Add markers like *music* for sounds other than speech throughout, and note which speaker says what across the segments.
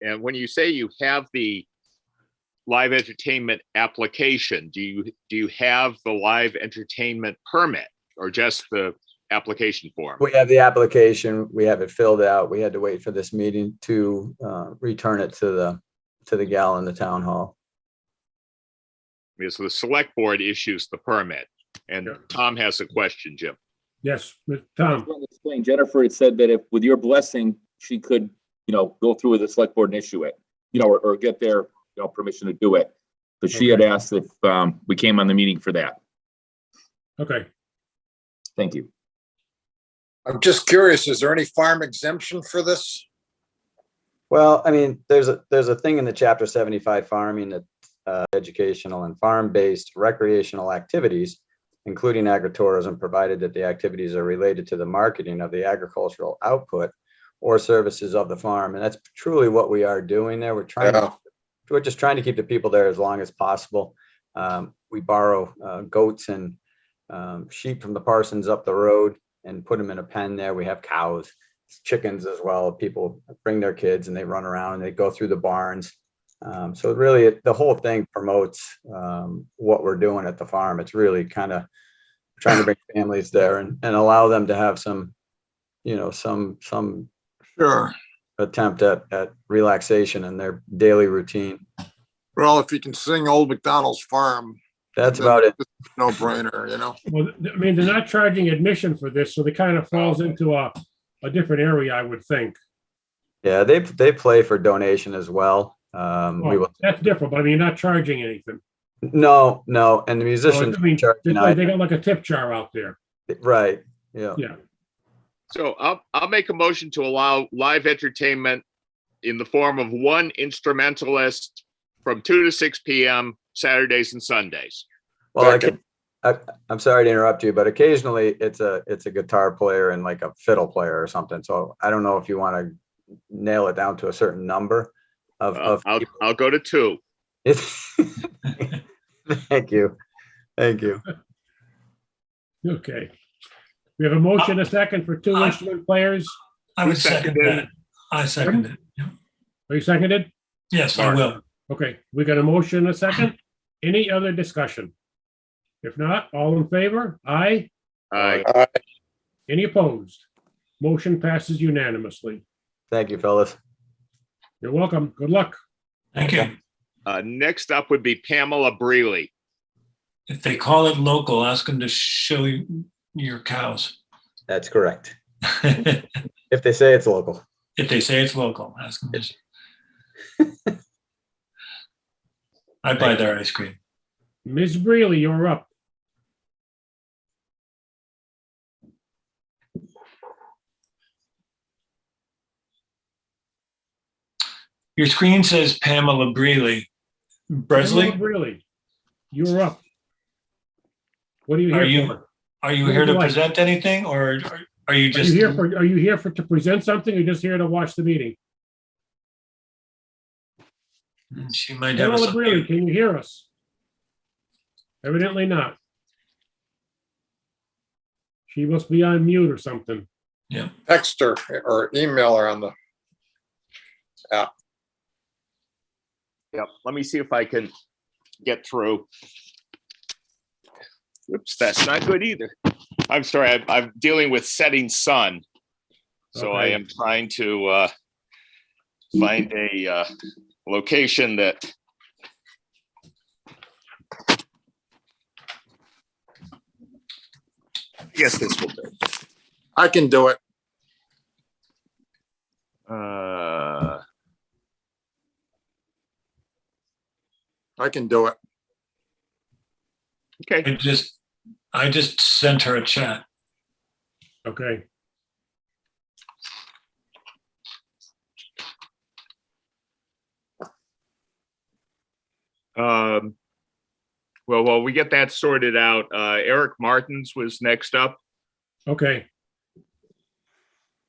Speaker 1: And when you say you have the live entertainment application, do you, do you have the live entertainment permit or just the application form?
Speaker 2: *clears throat* We have the application, we have it filled out. We had to wait for this meeting to uh, return it to the, to the gal in the town hall.
Speaker 1: Because the select board issues the permit. And
Speaker 3: Yeah.
Speaker 1: Tom has a question, Jim.
Speaker 3: Yes, Mr.
Speaker 4: I was
Speaker 3: Tom,
Speaker 4: going to explain, Jennifer had said that if, with your blessing, she could, you know, go through with the select board and issue it, you know, or, or get their, you know, permission to do it. But she had asked if, um, we came on the meeting for that.
Speaker 3: okay.
Speaker 4: Thank you.
Speaker 5: I'm just curious, is there any farm exemption for this?
Speaker 2: Well, I mean, there's a, there's a thing in the chapter seventy-five farming that uh, educational and farm-based recreational activities, including agritourism, provided that the activities are related to the marketing of the agricultural output or services of the farm. And that's truly what we are doing there. We're trying to
Speaker 5: Yeah,
Speaker 2: we're just trying to keep the people there as long as possible. Um, we borrow uh, goats and um, sheep from the parsons up the road and put them in a pen there. We have cows, chickens as well. People bring their kids and they run around and they go through the barns. Um, so really, it- the whole thing promotes um, what we're doing at the farm. It's really kind of trying to bring families there and, and allow them to have some, you know, some some
Speaker 5: Sure.
Speaker 2: attempt at, at relaxation in their daily routine.
Speaker 5: Well, if you can sing Old McDonald's Farm,
Speaker 2: That's about it.
Speaker 5: no brainer, you know?
Speaker 3: Well, th- I mean, they're not charging admission for this, so they kind of falls into a, a different area, I would think.
Speaker 2: Yeah, they they play for donation as well. Um, we will.
Speaker 3: That's different, but I mean, you're not charging anything.
Speaker 2: No, no, and the
Speaker 3: So,
Speaker 2: musicians
Speaker 3: Oh, I mean,
Speaker 2: charge
Speaker 3: They
Speaker 2: tonight.
Speaker 3: they got like a tip jar out there.
Speaker 2: right? Yeah.
Speaker 3: Yeah,
Speaker 1: So I'll, I'll make a motion to allow live entertainment in the form of one instrumentalist from two to six PM Saturdays and Sundays.
Speaker 2: Well, I
Speaker 5: Second.
Speaker 2: can, I, I'm sorry to interrupt you, but occasionally it's a it's a guitar player and like a fiddle player or something. So I don't know if you want to nail it down to a certain number of
Speaker 1: Uh,
Speaker 2: of. *laughs*
Speaker 1: I'll, I'll go to two.
Speaker 2: Thank you, thank you.
Speaker 3: okay. We have a motion, a second for two instrument players.
Speaker 6: I
Speaker 1: Who
Speaker 6: would second
Speaker 1: seconded
Speaker 6: that. I second it.
Speaker 3: Are you seconded?
Speaker 6: Yes, I
Speaker 1: Mark.
Speaker 6: will.
Speaker 3: Okay, we got a motion, a second. Any other discussion? If not, all in favor? Aye.
Speaker 1: Uh,
Speaker 3: Any opposed? Motion passes unanimously.
Speaker 2: Thank you, fellas.
Speaker 3: You're welcome. Good luck.
Speaker 6: Thank you.
Speaker 1: uh, next up would be Pamela Breely.
Speaker 6: If they call it local, ask them to show you your cows. *laughs*
Speaker 2: That's correct.
Speaker 6: If
Speaker 2: If they say it's local.
Speaker 6: they say it's local, ask them. to- *laughs* I buy their ice cream.
Speaker 3: Ms. Breely, you're up.
Speaker 6: Your screen says Pamela Breely. Bresley,
Speaker 3: Pamela Breely, you're up. What are you here
Speaker 6: are you,
Speaker 3: for?
Speaker 6: are you
Speaker 3: What
Speaker 6: here
Speaker 3: would you
Speaker 6: to
Speaker 3: like?
Speaker 6: present anything or are- are you
Speaker 3: Are
Speaker 6: just?
Speaker 3: you here for, are you here for, to present something or just here to watch the meeting?
Speaker 6: Mm, She might have. us
Speaker 3: Pamela
Speaker 6: on
Speaker 3: Breely,
Speaker 6: mute.
Speaker 3: can you hear us? Evidently not. She must be on mute or something.
Speaker 5: Text her or email her on the,
Speaker 1: Yep, let me see if I can get through. Oops, that's not good either. I'm sorry, I'm, I'm dealing with setting sun. So I
Speaker 3: Okay.
Speaker 1: am trying to, uh, find a, uh, location that I guess this will do.
Speaker 5: I can do it.
Speaker 1: Uh,
Speaker 5: I can do it.
Speaker 1: okay,
Speaker 6: I just, I just sent her a chat.
Speaker 3: Okay.
Speaker 1: um, well, while we get that sorted out, uh, Eric Martins was next up.
Speaker 3: Okay.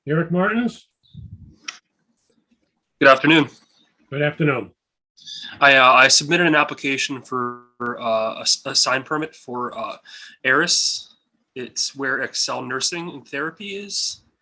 Speaker 3: Eric Martins,
Speaker 7: Good afternoon.
Speaker 3: good afternoon.
Speaker 7: I, uh, I submitted an application for uh, a, s- a sign permit for uh, Eris. It's where Excel Nursing and Therapy is.